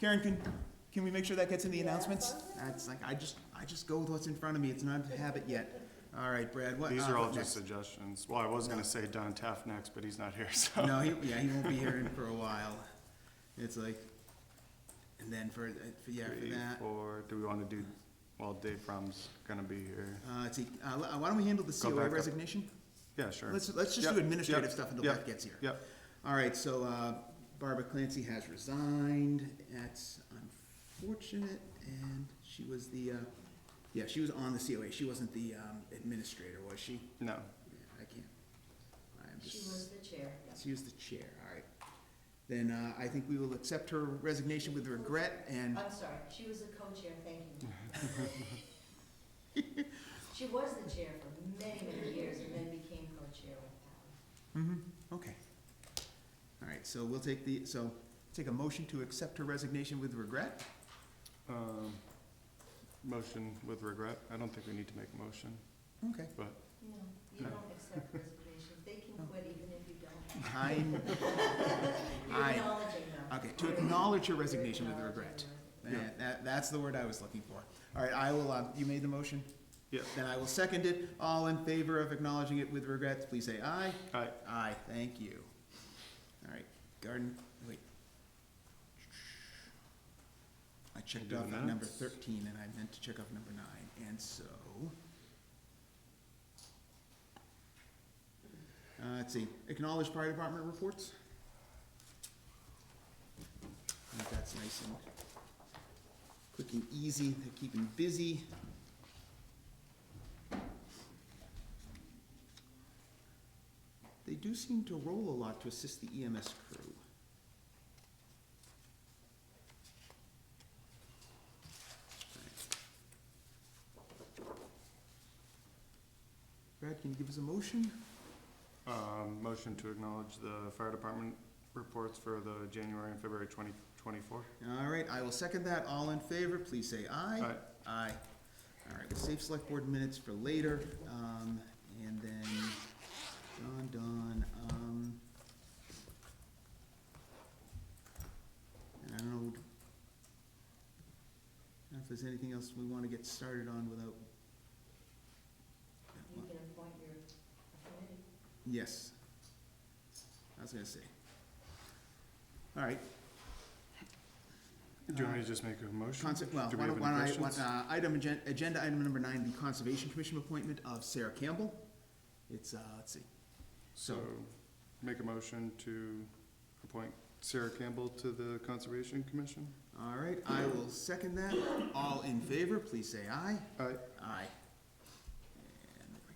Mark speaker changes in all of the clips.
Speaker 1: Karen, can, can we make sure that gets in the announcements?
Speaker 2: That's like, I just, I just go with what's in front of me, it's not a habit yet. All right, Brad, what?
Speaker 3: These
Speaker 2: uh,
Speaker 3: are all
Speaker 2: what
Speaker 3: just
Speaker 2: next?
Speaker 3: suggestions. Well, I was gonna say Don Taft next, but he's not here, so.
Speaker 2: No, he, yeah, he won't be here in for a while. It's like, and then for, uh, for- yeah, for
Speaker 3: Three,
Speaker 2: that.
Speaker 3: four, do we wanna do, well, Dave From's gonna be here.
Speaker 2: Uh, let's see, uh, l- uh, why don't we handle the
Speaker 3: Go
Speaker 2: COA
Speaker 3: back up.
Speaker 2: resignation?
Speaker 3: Yeah, sure.
Speaker 2: Let's, let's just
Speaker 3: Yep,
Speaker 2: do administrative
Speaker 3: yep,
Speaker 2: stuff until
Speaker 3: yep,
Speaker 2: Beth gets here.
Speaker 3: Yep,
Speaker 2: All right, so uh, Barbara Clancy has resigned. That's unfortunate, and she was the, uh, yeah, she was on the COA. She wasn't the um, administrator, was she?
Speaker 3: no.
Speaker 2: Yeah, I can't. I'm
Speaker 4: She was
Speaker 2: just,
Speaker 4: the chair, yeah.
Speaker 2: she was the chair, all right. Then uh, I think we will accept her resignation with regret, and
Speaker 4: I'm sorry, she was the co-chair, thank you. She was the chair for many, many years and then became co-chair with Alan.
Speaker 1: Mm-hmm.
Speaker 2: Okay. All right, so we'll take the, so take a motion to accept her resignation with regret.
Speaker 3: Um, Motion with regret. I don't think we need to make a motion,
Speaker 2: Okay.
Speaker 3: but
Speaker 4: No, you don't accept resignations, they can quit even if you don't.
Speaker 2: I'm,
Speaker 4: You're
Speaker 2: I-
Speaker 4: acknowledging them.
Speaker 2: okay, to acknowledge her resignation with
Speaker 4: You're acknowledging
Speaker 2: regret.
Speaker 4: them.
Speaker 3: Yeah.
Speaker 2: That, that- that's the word I was looking for. All right, I will, uh, you made the motion?
Speaker 3: Yeah.
Speaker 2: Then I will second it. All in favor of acknowledging it with regrets, please say aye.
Speaker 3: I,
Speaker 2: Aye, thank you. All right, garden, wait. I checked
Speaker 3: Do the
Speaker 2: off on number
Speaker 3: minutes.
Speaker 2: thirteen and I meant to check off number nine, and so. Uh, let's see, acknowledge fire department reports. I think that's nice and quick and easy, they're keeping busy. They do seem to roll a lot to assist the EMS crew. Brad, can you give us a motion?
Speaker 3: um, motion to acknowledge the fire department reports for the January and February twenty twenty-four.
Speaker 2: All right, I will second that. All in favor, please say aye.
Speaker 3: Aye.
Speaker 2: Aye. All right, we'll save select board minutes for later, um, and then, Don, Don, um. And I don't know, I don't know if there's anything else we wanna get started on without.
Speaker 4: You can appoint your committee.
Speaker 2: Yes. I was gonna say. All right,
Speaker 3: Do you want me to just make a motion?
Speaker 2: Conse- well,
Speaker 3: Do we
Speaker 2: why
Speaker 3: have
Speaker 2: don't, why
Speaker 3: any
Speaker 2: don't I, why-
Speaker 3: questions?
Speaker 2: uh, item, agen- agenda item number nine, the Conservation Commission appointment of Sarah Campbell. It's, uh, let's see,
Speaker 3: So, make a motion to appoint Sarah Campbell to the Conservation Commission?
Speaker 2: all right, I will second that. All in favor, please say aye.
Speaker 3: Aye.
Speaker 2: Aye. And there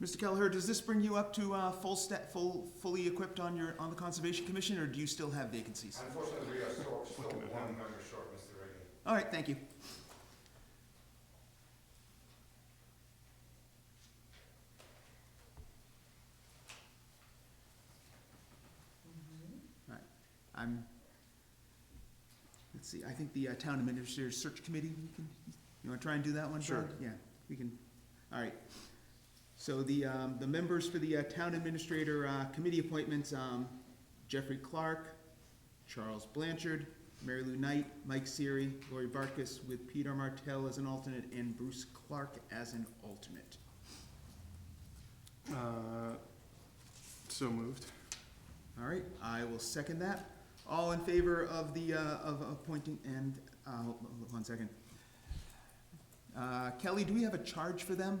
Speaker 2: we
Speaker 1: Mr. Kelleher, does this bring you up to, uh, full sta, full, fully equipped on your, on the Conservation Commission, or do you still have vacancies?
Speaker 5: Unfortunately, we are still, still one member short, Mr. Reagan.
Speaker 2: go. All right, thank you. I'm, let's see, I think the uh, Town Administrator Search Committee, we can, you wanna try and do that one, Brad?
Speaker 3: Sure.
Speaker 2: Yeah, we can, all right. So the, um, the members for the uh, Town Administrator, uh, Committee appointments, um, Jeffrey Clark, Charles Blanchard, Mary Lou Knight, Mike Siri, Lori Barkus, with Peter Martell as an alternate, and Bruce Clark as an alternate.
Speaker 3: Uh, So moved.
Speaker 2: All right, I will second that. All in favor of the, uh, of appointing, and, uh, hold hold one second. Uh, Kelly, do we have a charge for them?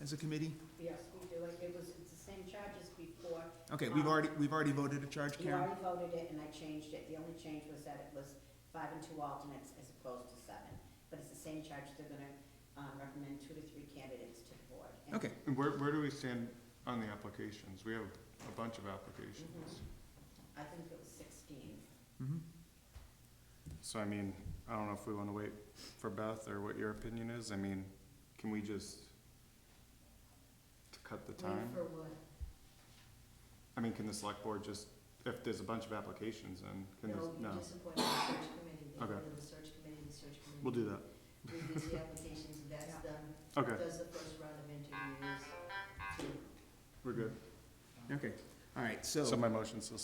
Speaker 2: As a committee?
Speaker 6: Yes, we do, Like, it was, it's the same charge as before.
Speaker 2: Okay, we've already, we've already voted a charge,
Speaker 6: You
Speaker 2: Karen?
Speaker 6: already voted it, and I changed it, the only change was that it was five and two alternates as opposed to seven. But it's the same charge, they're gonna, um, recommend two to three candidates to the board. And-
Speaker 2: Okay,
Speaker 3: And where, where do we stand on the applications? We have a bunch of
Speaker 4: Mm-hmm.
Speaker 3: applications.
Speaker 6: I think it was sixteen.
Speaker 2: mhm.
Speaker 3: So I mean, I don't know if we wanna wait for Beth or what your opinion is. I mean, can we just to cut the
Speaker 4: Wait
Speaker 3: time?
Speaker 4: For what?
Speaker 3: I mean, can the select board just, if there's a bunch of applications, then can this,
Speaker 4: No, you
Speaker 3: no,
Speaker 4: just appoint the search committee, they go
Speaker 3: Okay.
Speaker 4: to the search committee, the search committee.
Speaker 3: we'll do that.
Speaker 4: Reviews the applications, that's done,
Speaker 3: Okay,
Speaker 4: does the first round of interviews, to
Speaker 3: we're good.
Speaker 2: okay, all right,
Speaker 3: So my motion's still